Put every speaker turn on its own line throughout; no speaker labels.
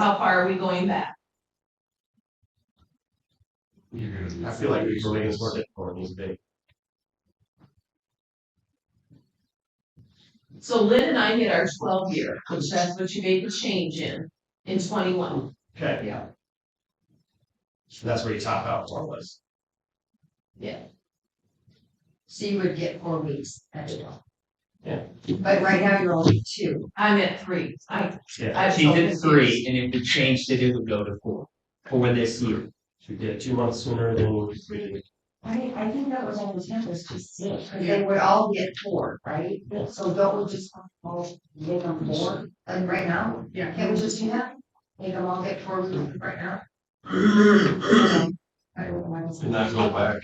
How far are we going back?
I feel like we should make this more difficult, it's big.
So Lynn and I hit our twelve year, which that's what you made the change in, in twenty-one.
Okay,
Yeah.
so that's where you top out more or less.
So you would get four weeks extra.
Yeah.
But right now you're only two.
I'm at three. I,
Yeah,
I'm
She
so
did three,
confused.
and if we changed it, it would go to four for this year.
so we did it two months sooner than we did.
I, I think that was on the ten, was just six, and they would all get four, right?
Yeah.
So don't we just all give them four, like right now?
Yeah.
Can we just do that? Make them all get four weeks right now? I don't know why I was-
not go back.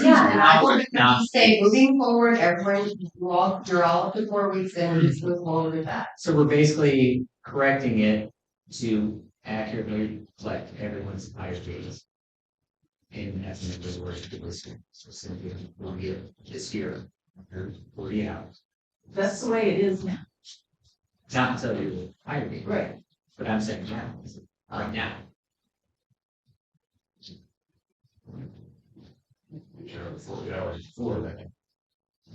Yeah, and I would
Now-
say, moving forward, everyone, you all, you're all up to four weeks and just move forward with that.
So we're basically correcting it to accurately reflect everyone's higher grades. And as an number work for this year, so simply we'll get this year, forty out,
That's the way it is now.
not until you're higher grade.
Right.
But I'm saying now, right now.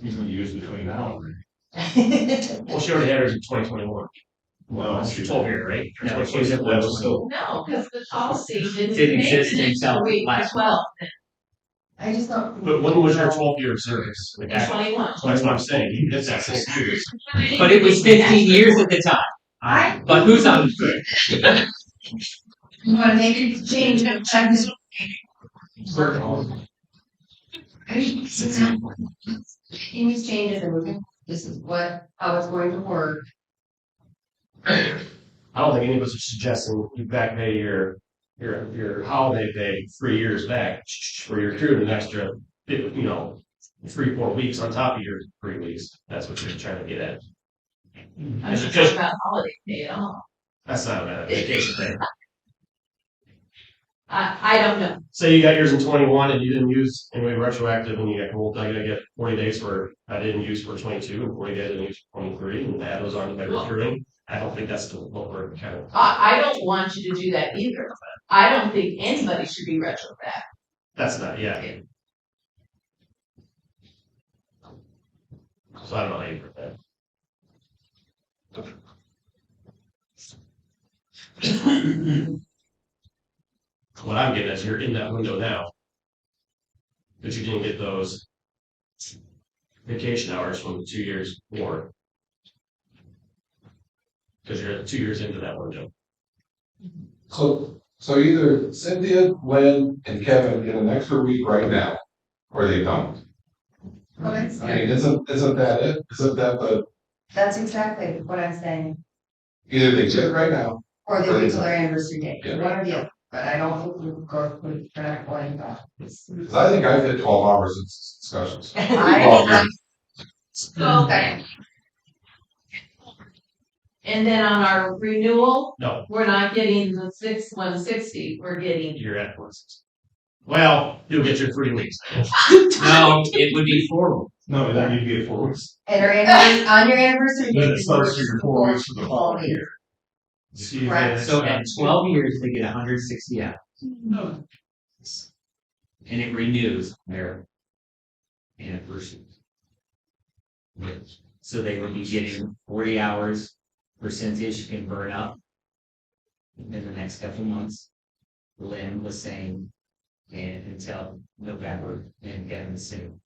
years between now and.
Well, she already had hers in twenty twenty-one.
Well,
She told me, right?
No,
Like,
she was at
that was
121.
still-
No, because the policy didn't.
Didn't
make
exist
it into
until
week
last
Twelve,
I just don't.
But when was your twelve year of service? Like,
and
That's
twenty-one.
that's what I'm saying, you did that six years.
But it was fifteen years at the time,
I,
but who's on?
you wanna make a change and check this These changes are moving, this is what, how it's going to work.
I don't think any of us are suggesting you back pay your, your, your holiday pay three years back for your crew an extra, you know, three, four weeks on top of your three weeks. That's what you're trying to get at.
I'm
It's
not
just-
talking about holiday pay at all.
That's not a vacation thing.
I, I don't know.
Say you got yours in twenty-one and you didn't use, and we retroactive and you got, well, I gotta get forty days for, I didn't use for twenty-two and forty days I didn't use for twenty-three and add those on to my recruiting. I don't think that's the- what we're kind of,
I, I don't want you to do that either. I don't think anybody should be retroactive.
that's not, yeah. So I don't know how you put that. What I'm getting is you're in that window now. But you didn't get those vacation hours from the two years before. Because you're two years into that window.
So, so either Cynthia, Lynn, and Kevin get an extra week right now, or they don't.
Oh,
I mean, isn't, isn't that it? Isn't that the,
That's exactly what I'm saying,
either they get it right now,
or they wait till their anniversary date,
Yeah.
one or the other, but I don't think we would go, we're not going back.
because I think I've hit twelve hours of s- discussions.
I,
So, and then on our renewal,
No,
we're not getting the six one sixty, we're getting.
you're at four sixty. Well, you'll get your three weeks.
No, it would be four.
No, then you'd get four weeks.
and our anniversary, on your anniversary.
Then
date,
it starts your four weeks for the
Four
following year.
So you
Right,
get
So
extra-
at twelve years, they get hundred and sixty out. And it renews their anniversary. So they would be getting forty hours percentage can burn up in the next couple months. Lynn was saying, and until November, and Kevin was saying.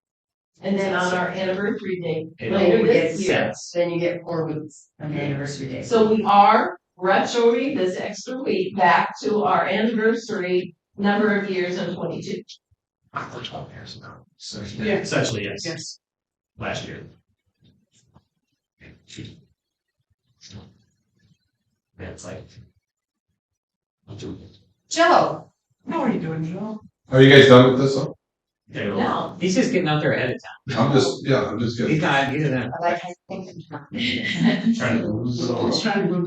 And then on our anniversary day
it
later
all
this
gets
year.
sets.
Then you get four weeks on the anniversary date.
So we are retroing this extra week back to our anniversary number of years in twenty-two.
So, yeah, essentially, yes. Yes. Last year. That's like.
Joe,
Are you guys done with this one?
Okay, well,
No,
He's just getting out there ahead of
I'm just, yeah, I'm just
time. He's
getting,
not, he's not.
I like, I think,
trying to.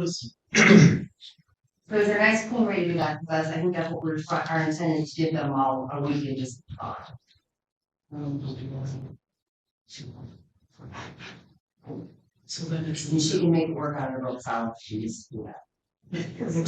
But it's a nice cool way to do that, because I think that's what we're, try- our intent is to give them all a week and just. uh, So then it's. She can make it work on her own, so she's, yeah.
no,